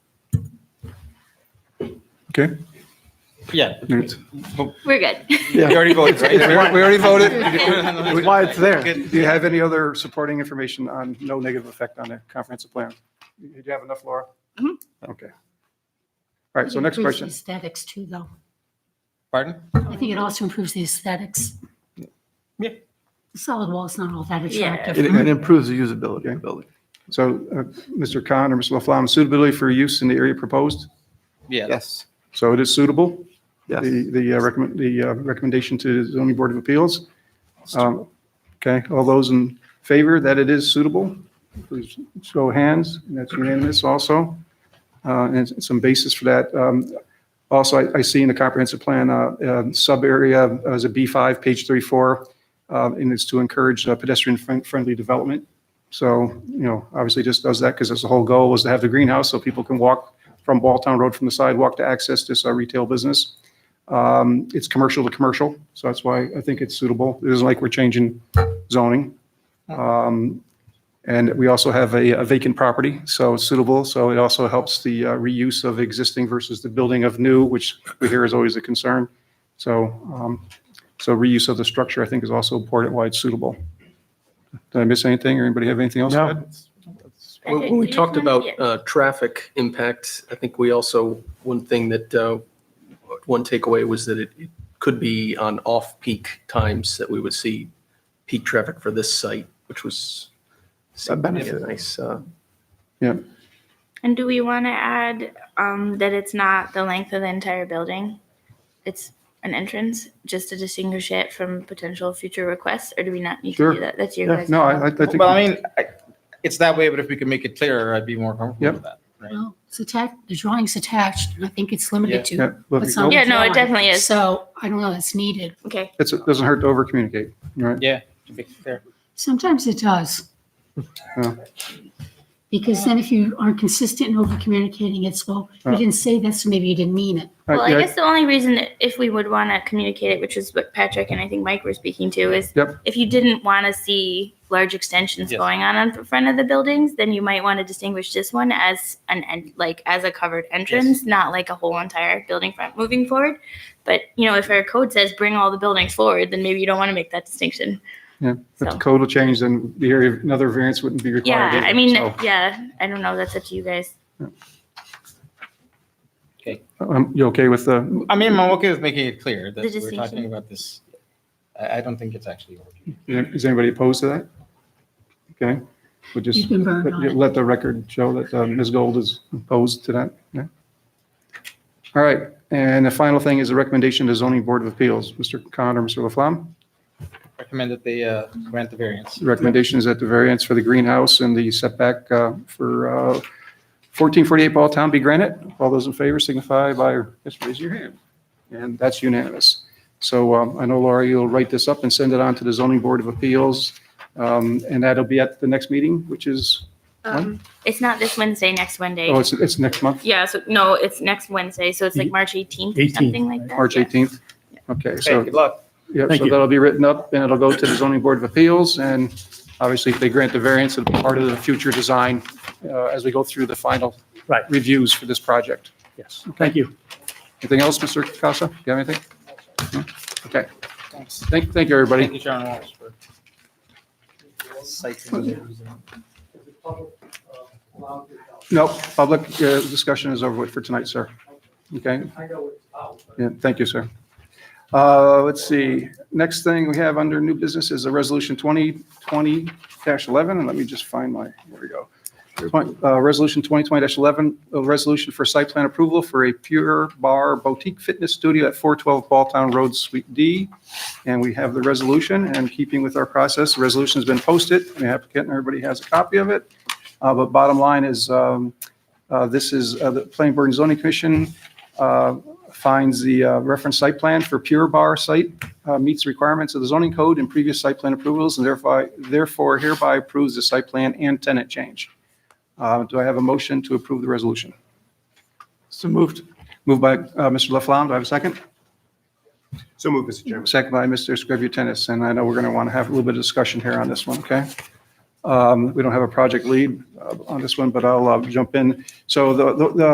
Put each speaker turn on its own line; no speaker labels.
Okay,
Yeah,
Right.
We're good.
we already voted,
We
right?
already voted.
That's why it's there.
Do you have any other supporting information on no negative effect on the comprehensive plan? Did you have enough, Laura?
Mhm.
Okay. All right, so
It
next
improves the
question.
Aesthetics too, though.
Pardon?
I think it also improves the aesthetics.
Yeah.
The Solid wall is not all that
Yeah.
It
attractive.
it improves the usability of the building.
So uh, Mr. Khan or Ms. Laflamme, suitability for use in the area proposed?
Yeah, that's-
Yes,
So it is suitable,
yes.
the, the uh, recommend, the uh, recommendation to the zoning board of appeals? Um, Okay, all those in favor that it is suitable, please show of hands, and that's unanimous also. Uh, And s- some basis for that. Um, Also, I, I see in the comprehensive plan, uh, um, sub-area as a B5, page 34, uh, and it's to encourage uh, pedestrian-friendly development. So, you know, obviously just does that because that's the whole goal was to have the greenhouse so people can walk from Balltown Road from the sidewalk to access this uh, retail business. Um, It's commercial to commercial, so that's why I think it's suitable. It isn't like we're changing zoning. Um, And we also have a a vacant property, so it's suitable. So it also helps the uh, reuse of existing versus the building of new, which we hear is always a concern. So, um, so reuse of the structure, I think, is also important why it's suitable. Did I miss anything, or anybody have anything else? to
No.
add?
When when we
Just
talked
wanna-
about
yeah.
uh, traffic impacts, I think we also, one thing that, uh, one takeaway was that it it could be on off-peak times that we would see peak traffic for this site, which was
A benefit.
nice. uh,
Yeah,
And do we want to add um, that it's not the length of the entire building? It's an entrance, just to distinguish it from potential future requests, or do we not need
Sure.
to do that? That's your
Yeah,
guys.
no, I, I I think.
Well, I mean, I- it's that way, but if we could make it clearer, I'd be more comfortable with that, right?
Well, It's attached, the drawing's attached, and I think it's
Yeah.
limited to.
yeah, let me
what's on the
go.
Yeah, no, it
drawing.
definitely is.
So I don't know, it's needed.
Okay.
It's- It doesn't hurt to overcommunicate, right?
Yeah, to be clear.
Sometimes it does.
Yeah.
Because then if you aren't consistent in over communicating, it's, well, you
Yeah.
didn't say this, maybe you didn't mean it.
All
Well,
right,
I
yeah,
guess the only reason that if we would want to communicate it, which is what Patrick and I think Mike were speaking to, is
Yep.
if you didn't want to see large extensions
Yes.
going on in front of the buildings, then you might want to distinguish this one as an en- like as a covered entrance, not like a whole entire building front moving forward. But you know, if our code says bring all the buildings forward, then maybe you don't want to make that distinction.
Yeah, if the
So.
code will change, then the area, another variance wouldn't be required.
Yeah,
either,
I mean,
so,
yeah, I don't know. That's up to you guys.
um, You okay with the,
I mean, I'm okay with making it clear that
The
we're talking
distinction.
about this. I, I don't think it's actually working.
is anybody opposed to that? Okay, we'll
You've
just
been burned on
let
it.
let the record show that uh, Ms. Gold is opposed to that. Yeah. All right, and the final thing is a recommendation to zoning board of appeals. Mr. Khan or Mr. Laflamme?
Recommend that they uh, grant the variance.
The recommendation is that the variance for the greenhouse and the setback uh, for uh, 1448 Ball Town be granted. All those in favor signify by, just raise your hand. And that's unanimous. So um, I know, Laura, you'll write this up and send it on to the Zoning Board of Appeals. um, And that'll be at the next meeting, which is,
Um, it's not this Wednesday. Next Wednesday.
oh, it's, it's next month,
yeah. So no, it's next Wednesday. So it's like March 18th, or something like that.
March
yeah.
18th? Okay,
Hey,
so,
good luck.
yeah,
Thank
so
you.
that'll be written up and it'll go to the Zoning Board of Appeals. And obviously, if they grant the variance, it'll be part of the future design uh, as we go through the final
Right.
reviews for this project.
Yes, thank you.
Anything else, Mr. Casa? Do you have anything? No? Okay.
Thanks.
Thank, thank you, everybody.
Thank you, Sharon Walsh, for citing the reason.
No, public uh, discussion is over with for tonight, sir. Okay? Yeah, thank you, sir. Uh, Let's see, next thing we have under new business is a resolution 2020-11, and let me just find my, there we go. Twen- uh, Resolution 2020-11, a resolution for site plan approval for a Pure Bar Boutique Fitness Studio at 412 Balltown Road, Suite D. And we have the resolution, and in keeping with our process, the resolution's been posted, the applicant, and everybody has a copy of it. Uh, But bottom line is, um, uh, this is, uh, the Planning Board and Zoning Commission uh, finds the uh, reference site plan for Pure Bar site uh, meets requirements of the zoning code and previous site plan approvals, and therefore therefore hereby approves the site plan and tenant change. Uh, Do I have a motion to approve the resolution?
So moved.
Moved by uh, Mr. Laflamme, do I have a second?
So moved, Mr. Chairman.
Second by Mr. Scributinus, and I know we're going to want to have a little bit of discussion here on this one, okay? Um, We don't have a project lead uh, on this one, but I'll uh, jump in. So the, the- the